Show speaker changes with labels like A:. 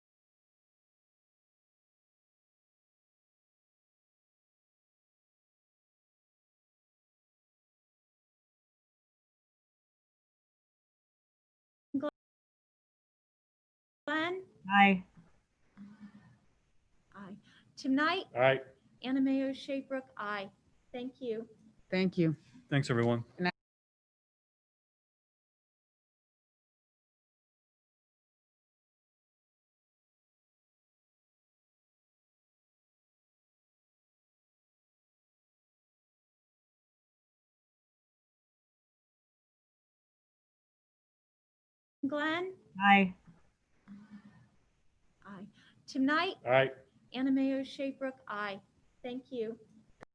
A: Glenn?
B: Aye.
A: Aye. Tim Knight,
C: Aye.
A: Anna Mayo Schaefer, aye. Thank you.
D: Thank you.
C: Thanks, everyone.
A: Glenn?
B: Aye.
A: Aye. Tim Knight,
C: Aye.
A: Anna Mayo Schaefer, aye. Thank you.